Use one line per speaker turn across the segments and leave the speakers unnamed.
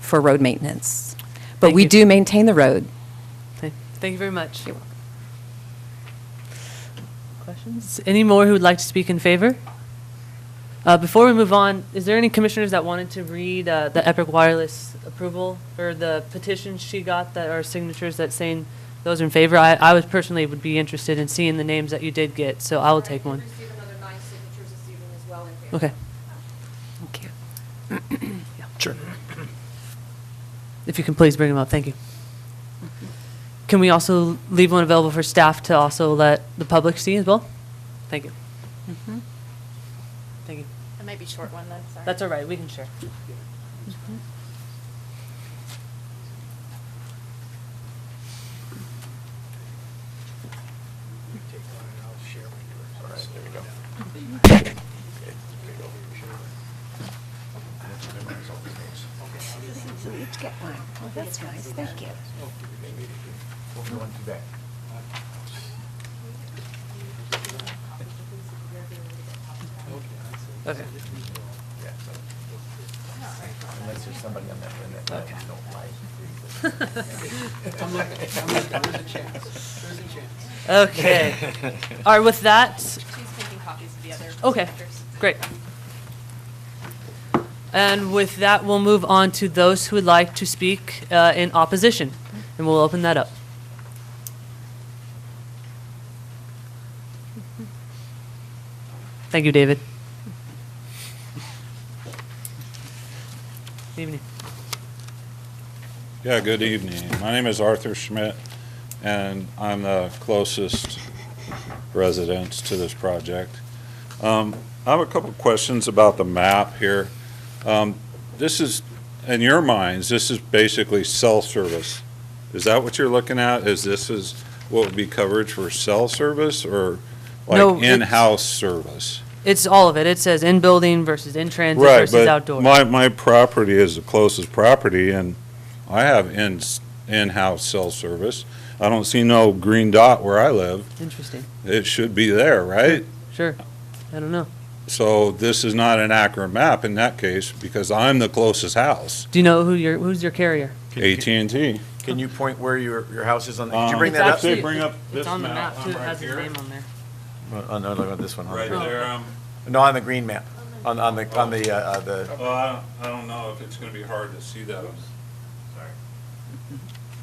for road maintenance. But
Thank
we
you.
do maintain the road.
Okay. Thank you very much. Questions? Any more who would like to speak in favor? Uh, Before we move on, is there any commissioners that wanted to read uh, the Epic Wireless approval or the petitions she got that are signatures that saying those in favor? I, I was personally would be interested in seeing the names that you did get, so I will take one.
Received another nine signatures this evening as well in favor.
Okay.
Thank you.
Sure.
If you can please bring them up, thank you. Can we also leave one available for staff to also let the public see as well? Thank you. Thank you.
That might be a short one, then, sorry.
That's all right, we can share.
All right, there we go.
So each get one. Well, that's nice, thank you.
Okay.
Unless there's somebody on that one that
Okay.
I don't like.
Okay. All right, with that,
She's taking copies of the other.
Okay,
signatures.
great. And with that, we'll move on to those who would like to speak uh, in opposition, and we'll open that up. Thank you, David. Evening.
Yeah, good evening. My name is Arthur Schmidt, and I'm the closest resident to this project. Um, I have a couple questions about the map here. Um, This is, in your minds, this is basically cell service. Is that what you're looking at? Is this is what would be coverage for cell service or
No,
like
it's-
in-house service?
It's all of it. It says in-building versus in-transit
Right,
versus
but
outdoor.
my, my property is the closest property, and I have in, in-house cell service. I don't see no green dot where I live.
Interesting.
It should be there, right?
Sure. I don't know.
So this is not an accurate map in that case, because I'm the closest house,
Do you know who your, who's your carrier?
at and T.
Can you point where your, your house is on, the- could you
Uh,
bring
It's
that up?
actually-
Bring up this
It's on the
map.
map,
I'm
too. It
right
has his
here.
name on there.
Oh, no, look at this one.
Right there, um,
No, on the green map, on, on the, on the, uh, uh, the,
well, I don't- I don't know if it's gonna be hard to see that.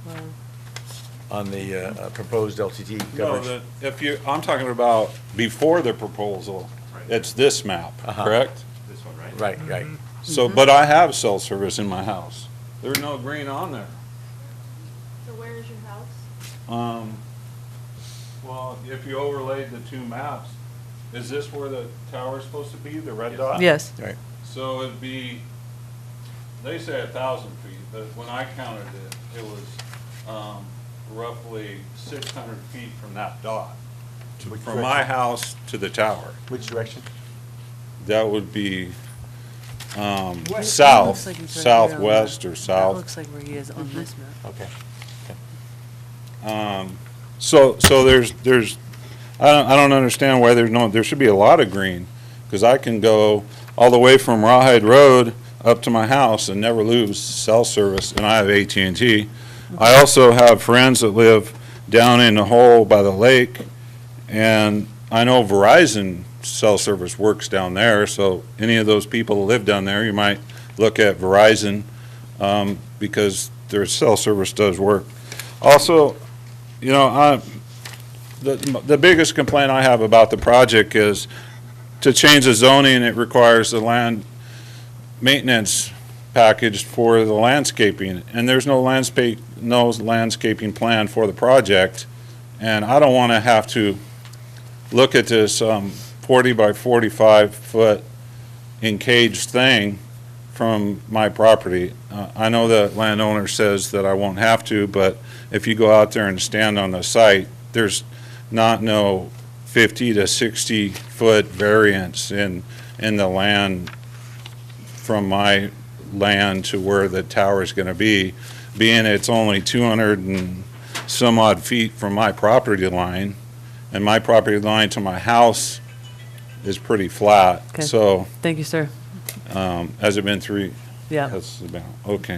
Sorry.
on the uh, uh, proposed LTT
No,
coverage.
the, if you, I'm talking about before the proposal, it's this map,
Uh-huh.
correct?
Right, right.
Mm-hmm.
So, but I have cell service in my house. There's no green on there.
So where is your house?
Um, well, if you overlaid the two maps, is this where the tower's supposed to be, the red dot?
Yes.
So it'd be, they say a thousand feet, but when I counted it, it was, um, roughly six hundred feet from that dot. to-
Which
From my house to the tower.
Which direction?
That would be, um, south, southwest or south.
looks like where he is on this map.
Okay.
So, so there's, there's, I don't, I don't understand why there's no, there should be a lot of green, because I can go all the way from Rawhide Road up to my house and never lose cell service, and I have AT&T. I also have friends that live down in the hole by the lake, and I know Verizon cell service works down there, so any of those people that live down there, you might look at Verizon, um, because their cell service does work. Also, you know, I, the, the biggest complaint I have about the project is to change the zoning, it requires the land maintenance package for the landscaping, and there's no landscape, no landscaping plan for the project. And I don't want to have to look at this, um, forty by forty-five foot encaged thing from my property. Uh, I know the landowner says that I won't have to, but if you go out there and stand on the site, there's not no 50 to 60-foot variance in, in the land from my land to where the tower's going to be, being it's only 200 and some odd feet from my property line, and my property line to my house is pretty flat.
Okay.
So
Thank you, sir.
um, has it been three?
Yeah.
Has it been, okay.